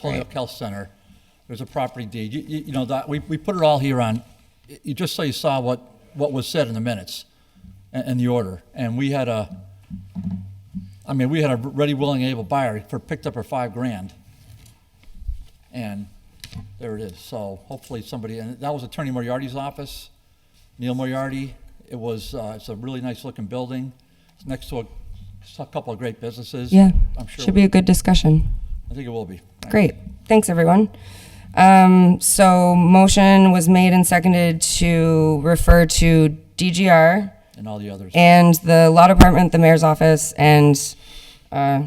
Pony Up Health Center. There's a property deed. You, you, you know, that, we, we put it all here on, you, just so you saw what, what was said in the minutes and, and the order. And we had a, I mean, we had a ready, willing, able buyer for, picked up her five grand. And there it is. So hopefully somebody, and that was Attorney Moriarty's office, Neil Moriarty. It was, uh, it's a really nice looking building. It's next to a, a couple of great businesses. Yeah, I'm sure. should we- be a good discussion. I think it will be. Great, thanks, everyone. Um, so motion was made and seconded to refer to DGR And all the others. and the law department, the mayor's office, and, uh,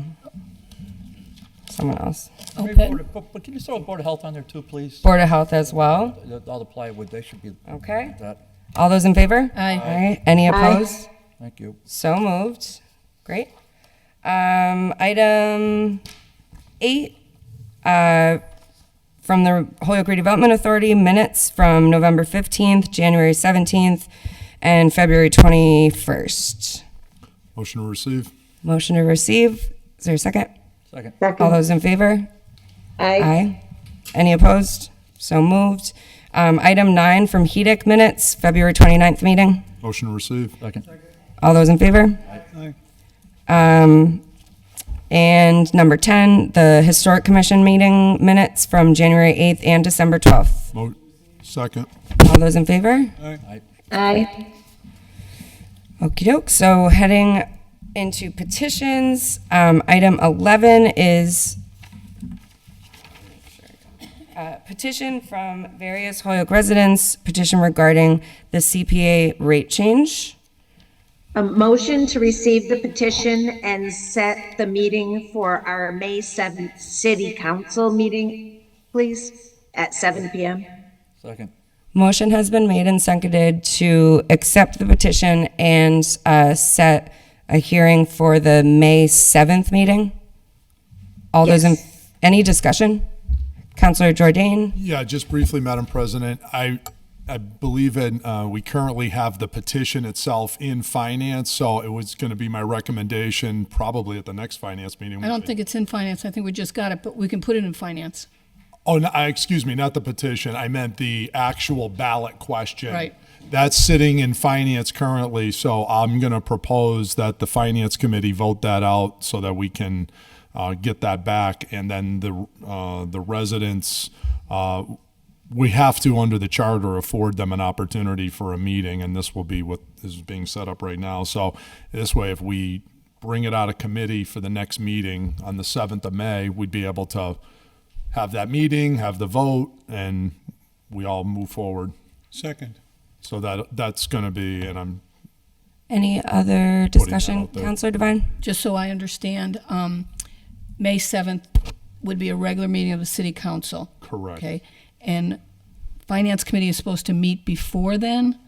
someone else. Maybe Open. Board of- But but can you throw Board of Health on there too, please? Board of Health as well. The- All the plywood, they should be Okay. that. All those in favor? Aye. All right, any opposed? Thank you. So moved. Great. Um, item eight, uh, from the Holyoke Redevelopment Authority, minutes from November 15th, January 17th, and February 21st. Motion to receive. Motion to receive. Is there a second? Second. All Second. those in favor? Aye. Aye. Any opposed? So moved. Um, item nine from HEDIC minutes, February 29th meeting. Motion to receive. Second. All those in favor? Um, and number 10, the Historic Commission meeting minutes from January 8th and December 12th. Mo, second. All those in favor? Aye. Aye. Okey doke. So heading into petitions, um, item 11 is uh, petition from various Holyoke residents, petition regarding the CPA rate change. A motion to receive the petition and set the meeting for our May 7th city council meeting, please, at 7 PM. Second. Motion has been made and seconded to accept the petition and uh, set a hearing for the May 7th meeting. All those in, Yes. any discussion? Counselor Jordan? Yeah, just briefly, Madam President, I, I believe in, uh, we currently have the petition itself in finance, so it was going to be my recommendation, probably at the next finance meeting. I don't think it's in finance. I think we just got it, but we can put it in finance. Oh, no, I, excuse me, not the petition. I meant the actual ballot question. Right. That's sitting in finance currently, so I'm going to propose that the finance committee vote that out so that we can uh, get that back. And then the, uh, the residents, uh, we have to, under the charter, afford them an opportunity for a meeting, and this will be what is being set up right now. So this way, if we bring it out of committee for the next meeting on the 7th of May, we'd be able to have that meeting, have the vote, and we all move forward. Second. So that, that's going to be, and I'm, Any other discussion? out there. Counselor Devine? Just so I understand, um, May 7th would be a regular meeting of the city council. Correct. Okay, and finance committee is supposed to meet before then?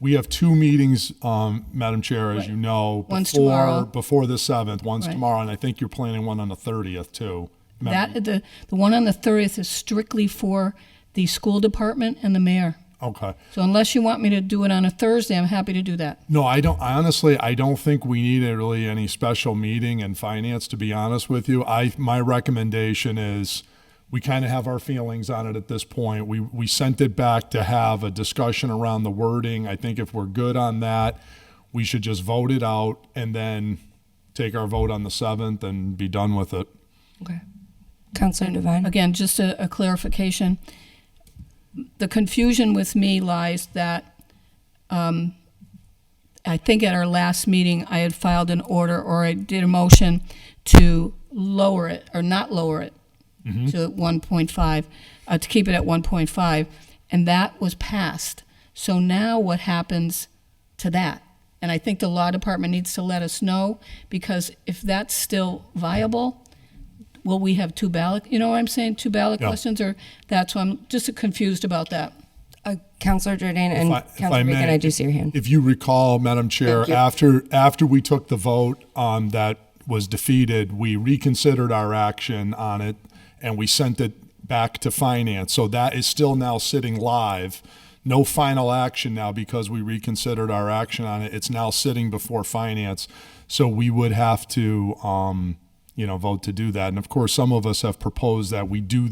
we have two meetings, um, Madam Chair, as you Right. know. One's before- tomorrow. Before the 7th, one's Right. tomorrow, and I think you're planning one on the 30th, too. Mem- That, the, the one on the 30th is strictly for the school department and the mayor. Okay. So unless you want me to do it on a Thursday, I'm happy to do that. No, I don't, I honestly, I don't think we need a- really any special meeting in finance, to be honest with you. I, my recommendation is, we kind of have our feelings on it at this point. We, we sent it back to have a discussion around the wording. I think if we're good on that, we should just vote it out and then take our vote on the seventh and be done with it. Okay. Uh, Counselor Devine? Again, just a, a clarification. The confusion with me lies that um, I think at our last meeting, I had filed an order or I did a motion to lower it or not lower it to 1.5, uh, to keep it at 1.5, and that was passed. So now what happens to that? And I think the law department needs to let us know because if that's still viable, will we have two ballot, you know what I'm saying, two ballot Yeah. questions or that's why I'm just confused about that. Uh, Counselor Jordan If and I- if Counselor may, Bacon, I do see your hand. If you recall, Madam Chair, after, after we took the vote um, that was defeated, we reconsidered our action on it and we sent it back to finance. So that is still now sitting live. No final action now because we reconsidered our action on it. It's now sitting before finance. So we would have to, um, you know, vote to do that. And of course, some of us have proposed that we do